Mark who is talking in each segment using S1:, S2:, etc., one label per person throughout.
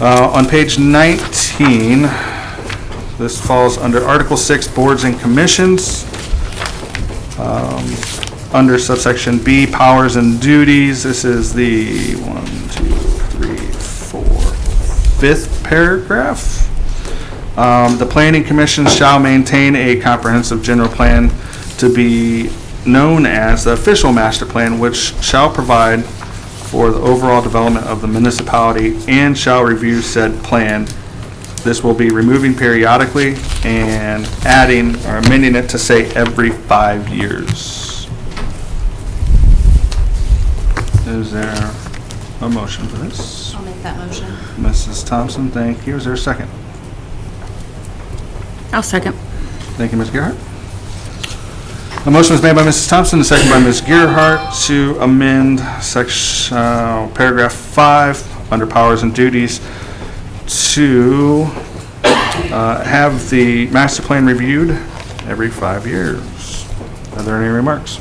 S1: Uh, On page 19, this falls under Article 6, Boards and Commissions. Um, Under subsection B, Powers and Duties, this is the one, two, three, four, fifth paragraph. Um, The planning commission shall maintain a comprehensive general plan to be known as the official master plan, which shall provide for the overall development of the municipality and shall review said plan. This will be removing periodically and adding or amending it to say every five years. Is there a motion for this?
S2: I'll make that motion.
S1: Mrs. Thompson, thank you. Is there a second?
S3: I'll second.
S1: Thank you, Ms. Gerhart. A motion was made by Mrs. Thompson, and seconded by Ms. Gerhart to amend section, uh, paragraph five, under powers and duties, to, uh, have the master plan reviewed every five years. Are there any remarks?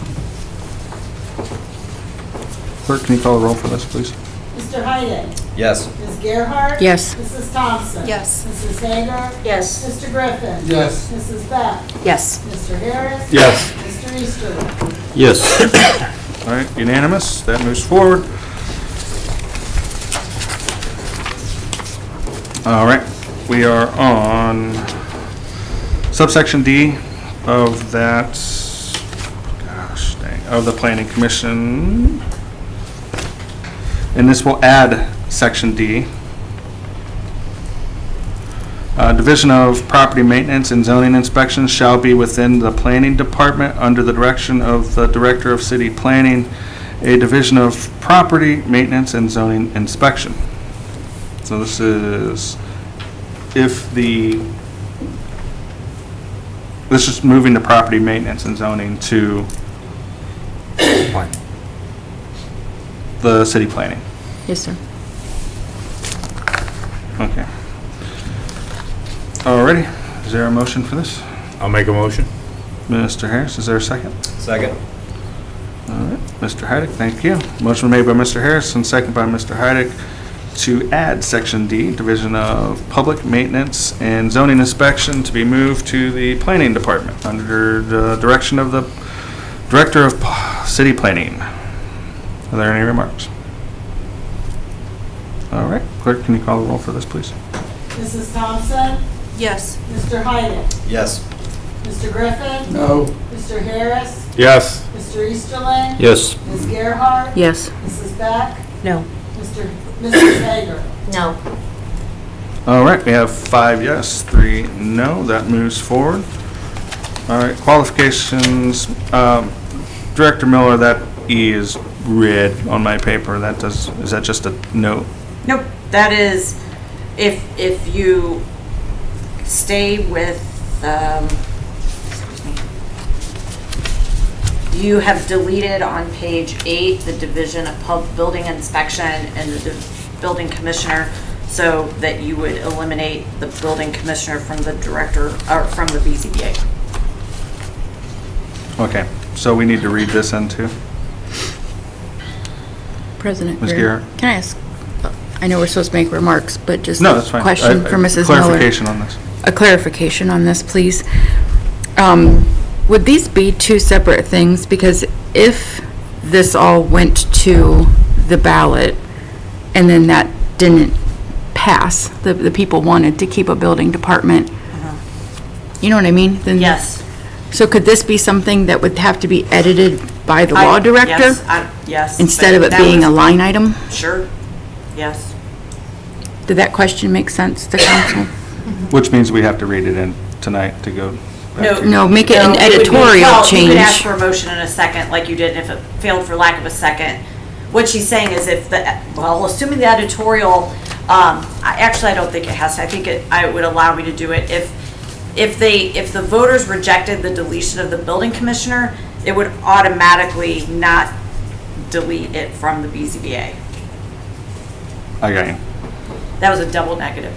S1: Clerk, can you call the roll for this, please?
S4: Mr. Hyden?
S5: Yes.
S4: Ms. Gerhart?
S3: Yes.
S4: Mrs. Thompson?
S2: Yes.
S4: Mrs. Hager?
S3: Yes.
S4: Mr. Griffin?
S6: Yes.
S4: Mrs. Beck?
S3: Yes.
S4: Mr. Harris?
S6: Yes.
S4: Mr. Easterly?
S6: Yes.
S1: All right, unanimous, that moves forward. All right, we are on subsection D of that, gosh dang, of the planning commission. And this will add section D. Uh, Division of Property Maintenance and Zoning Inspection shall be within the Planning Department under the direction of the Director of City Planning, a Division of Property Maintenance and Zoning Inspection. So this is if the, this is moving the property maintenance and zoning to the city planning.
S3: Yes, sir.
S1: Okay. Alrighty, is there a motion for this?
S6: I'll make a motion.
S1: Mr. Harris, is there a second?
S5: Second.
S1: Mr. Heidick, thank you. Motion made by Mr. Harris and second by Mr. Heidick to add Section D, Division of Public Maintenance and Zoning Inspection to be moved to the Planning Department under the direction of the Director of P- City Planning. Are there any remarks? All right, clerk, can you call the roll for this, please?
S4: Mrs. Thompson?
S2: Yes.
S4: Mr. Hyden?
S5: Yes.
S4: Mr. Griffin?
S6: No.
S4: Mr. Harris?
S6: Yes.
S4: Mr. Easterly?
S6: Yes.
S4: Ms. Gerhart?
S3: Yes.
S4: Mrs. Beck?
S3: No.
S4: Mr. Mrs. Hager?
S2: No.
S1: All right, we have five yes, three no, that moves forward. All right, qualifications, um, Director Miller, that E is red on my paper, that does, is that just a note?
S7: Nope, that is, if, if you stay with, um, excuse me. you have deleted on page eight, the division of pub, building inspection and the div- building commissioner, so that you would eliminate the building commissioner from the director, or from the BZBA.
S1: Okay, so we need to read this into,
S3: President
S1: Ms.
S3: Greer,
S1: Guerra.
S3: can I ask, uh, I know we're supposed to make remarks, but just
S1: no, that's fine.
S3: a question
S1: I- I-
S3: for Mrs. Miller.
S1: Clarification on this.
S3: A clarification on this, please. Um, Would these be two separate things? Because if this all went to the ballot and then that didn't pass, the, the people wanted to keep a building department, you know what I mean? Then-
S7: Uh-huh. Yes.
S3: So could this be something that would have to be edited by the law
S7: I-
S3: director?
S7: yes, I- Yes.
S3: Instead
S7: but
S3: of it
S7: that
S3: being
S7: was-
S3: a line item?
S7: Sure, yes.
S3: Did that question make sense to council?
S1: Which means we have to read it in tonight to go. back
S7: No.
S1: to-
S3: No, make it an
S7: No, you would be-
S3: editorial
S7: well, You could ask
S3: change.
S7: for a motion in a second, like you did if it failed for lack of a second. What she's saying is if the, well, assuming the editorial, um, I, actually, I don't think it has, to. I think it, I would allow me to do it if, if they, if the voters rejected the deletion of the building commissioner, it would automatically not delete it from the BZBA.
S1: I got you.
S7: That was a double negative.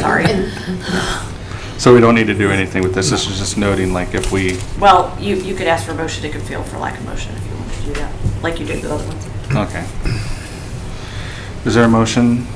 S7: Sorry.
S1: So we don't need to do anything with this, this is just noting like if we,
S7: Well, you, you could ask for a motion, it could fail for lack of motion if you wanted to do that, like you did the other ones.
S1: okay. Is there a motion